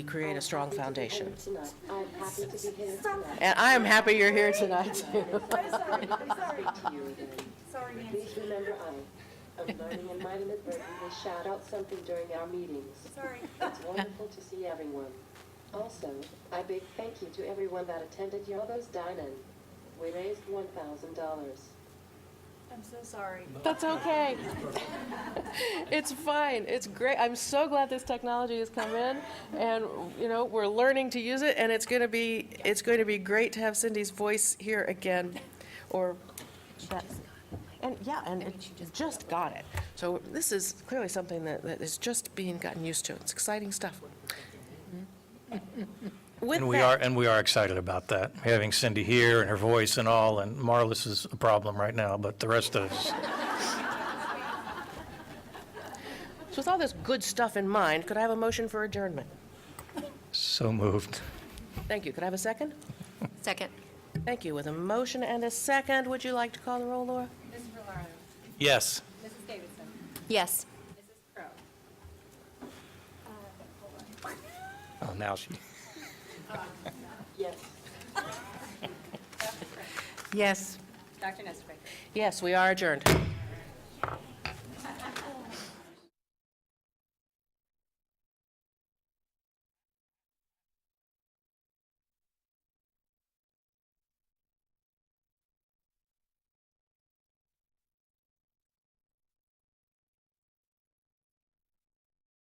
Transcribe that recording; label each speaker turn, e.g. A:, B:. A: create a strong foundation.
B: tonight. I'm happy to be here tonight.
A: And I am happy you're here tonight, too.
C: I'm sorry, I'm sorry,
B: To you again.
C: sorry, Nancy,
B: Please remember I, of learning and might inadvertently shout out something during our meetings.
C: sorry.
B: It's wonderful to see everyone. Also, I big thank you to everyone that attended Yobo's Dine-In. We raised one thousand dollars.
C: I'm so sorry.
A: That's okay. It's fine. It's great. I'm so glad this technology has come in, and, you know, we're learning to use it, and it's going to be, it's going to be great to have Cindy's voice here again, or that. And, yeah, and it just got it. So this is clearly something that, that is just being gotten used to. It's exciting stuff. With
D: Mm-hmm. And we
A: that-
D: are, and we are excited about that, having Cindy here and her voice and all, and Marlis is a problem right now, but the rest of us,
A: So with all this good stuff in mind, could I have a motion for adjournment?
D: so moved.
A: Thank you. Could I have a second?
E: Second.
A: Thank you. With a motion and a second, would you like to call the roll, Laura?
F: Mrs. Valero,
D: Yes.
F: Mrs. Davidson,
E: Yes.
F: Mrs. Crowe.
D: Oh, now she,
B: Yes.
A: Yes.
F: Dr. Nestor Baker.
A: Yes, we are adjourned.